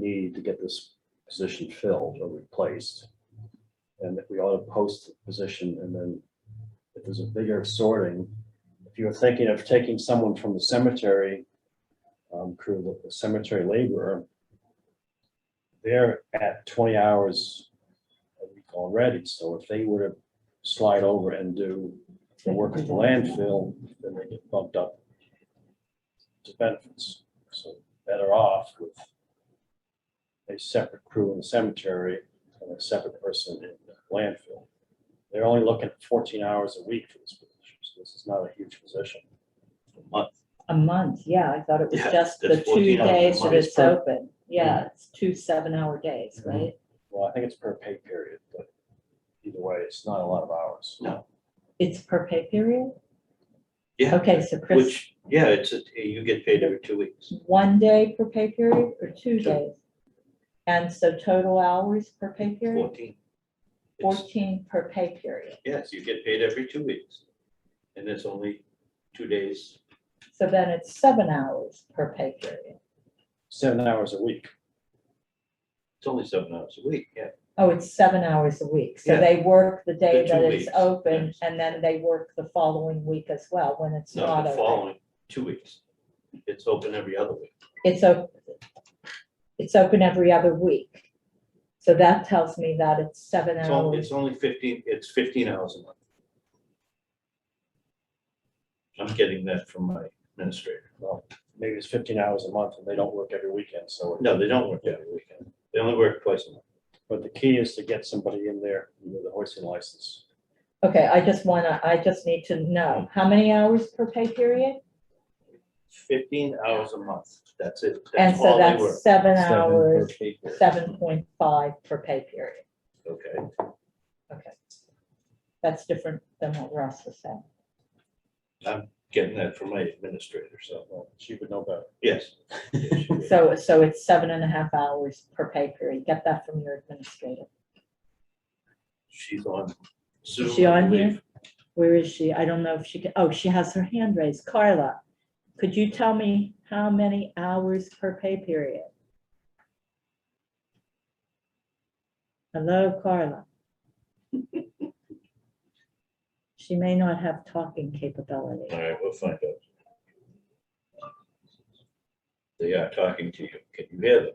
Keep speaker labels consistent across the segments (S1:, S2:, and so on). S1: need to get this position filled or replaced. And that we ought to post the position and then if there's a bigger sorting, if you're thinking of taking someone from the cemetery um, crew, the cemetery laborer, they're at twenty hours a week already, so if they were to slide over and do the work at the landfill, then they get bumped up to benefits, so better off with a separate crew in the cemetery and a separate person in the landfill. They're only looking at fourteen hours a week for this position, so this is not a huge position.
S2: A month, yeah, I thought it was
S3: Yeah,
S2: just the
S3: that's
S2: two
S3: 14 hours a
S2: days that
S3: month.
S2: it's
S1: Per-
S2: open. Yeah, it's two seven-hour days, right?
S1: Well, I think it's per pay period, but either way, it's not a lot of hours.
S3: No.
S2: It's per pay period?
S3: Yeah.
S2: Okay, so Chris,
S3: Which, yeah, it's, a- you get paid every two weeks.
S2: one day per pay period or two
S3: Two.
S2: days? And so total hours per pay period,
S3: Fourteen. It's-
S2: fourteen per pay period.
S3: Yes, you get paid every two weeks. And it's only two days.
S2: So then it's seven hours per pay period.
S1: Seven hours a week.
S3: It's only seven hours a week, yeah.
S2: Oh, it's seven hours a week. So
S3: Yeah.
S2: they work the day
S3: The two
S2: that it's
S3: weeks,
S2: open
S3: yes.
S2: and then they work the following week as well when it's
S3: No,
S2: not
S3: the
S2: open.
S3: following, two weeks. It's open every other week.
S2: It's open, it's open every other week. So that tells me that it's seven
S3: It's only,
S2: hours.
S3: it's only fifteen, it's fifteen hours a month. I'm getting that from my administrator.
S1: Well, maybe it's fifteen hours a month and they don't work every weekend, so. it-
S3: No, they don't work every weekend. They only work twice a month.
S1: But the key is to get somebody in there with a hoisting license.
S2: Okay, I just wanna, I just need to know, how many hours per pay period?
S3: Fifteen hours a month. That's it.
S2: And
S3: That's
S2: so
S3: all they work.
S2: that's seven
S1: Seven per
S2: hours,
S1: pay period.
S2: seven point five per pay period.
S3: Okay.
S2: Okay. That's different than what Ross was saying.
S3: Getting that from my administrator, so,
S1: Well, She would know better.
S3: yes. Yes, you would.
S2: So, so it's seven and a half hours per pay period. Get that from your administrator.
S3: She's on Zoom.
S2: she
S3: I
S2: on here?
S3: believe.
S2: Where is she? I don't know if she can, oh, she has her hand raised. Carla, could you tell me how many hours per pay period? Hello, Carla. She may not have talking capability.
S3: All right, we'll find out. They are talking to you. Can you hear them?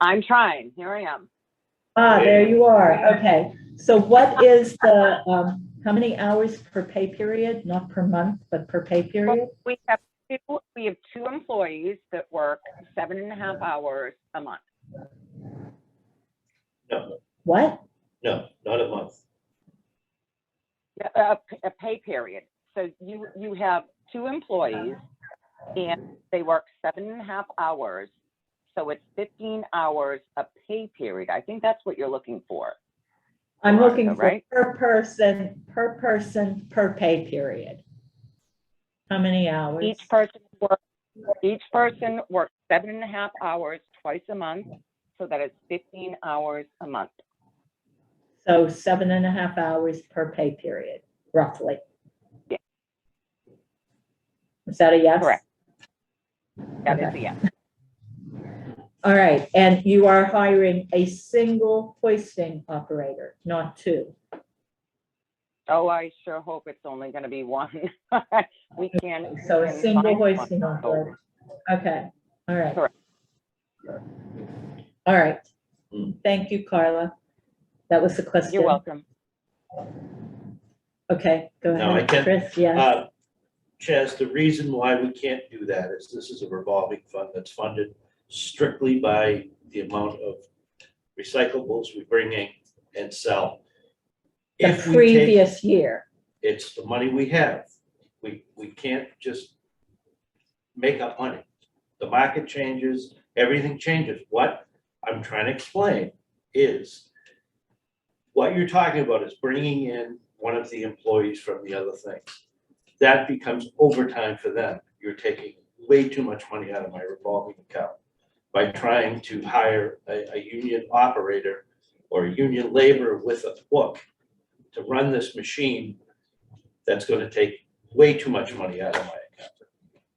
S4: I'm trying. Here I am.
S2: Ah, there you are. Okay. So what is the, um, how many hours per pay period? Not per month, but per pay period?
S4: We have two, we have two employees that work seven and a half hours a month.
S3: No,
S2: What?
S3: no, not a month.
S4: A, a- a pay period. So you, you have two employees and they work seven and a half hours. So it's fifteen hours a pay period. I think that's what you're looking for.
S2: I'm looking
S4: Veronica,
S2: for
S4: right?
S2: per person, per person, per pay period. How many hours?
S4: Each person works, each person works seven and a half hours twice a month. So that is fifteen hours a month.
S2: So seven and a half hours per pay period, roughly.
S4: Yeah.
S2: Is that a yes?
S4: Correct. That is a yes.
S2: All right, and you are hiring a single hoisting operator, not two.
S4: Oh, I sure hope it's only gonna be one. We can.
S2: So a
S4: we can
S2: single
S4: find one.
S2: hoisting operator. Okay, all right.
S4: Correct.
S2: All right.
S3: Hmm.
S2: Thank you, Carla. That was the question.
S4: You're welcome.
S2: Okay, go
S3: No, I
S2: ahead,
S3: can't-
S2: Chris, yes.
S3: Uh, Chaz, the reason why we can't do that is this is a revolving fund that's funded strictly by the amount of recyclables we bring in and sell.
S2: The
S3: If we take-
S2: previous year,
S3: It's the money we have. We, we can't just make up money. The market changes, everything changes. What I'm trying to explain is what you're talking about is bringing in one of the employees from the other things. That becomes overtime for them. You're taking way too much money out of my revolving account by trying to hire a, a union operator or a union laborer with a book to run this machine that's gonna take way too much money out of my account.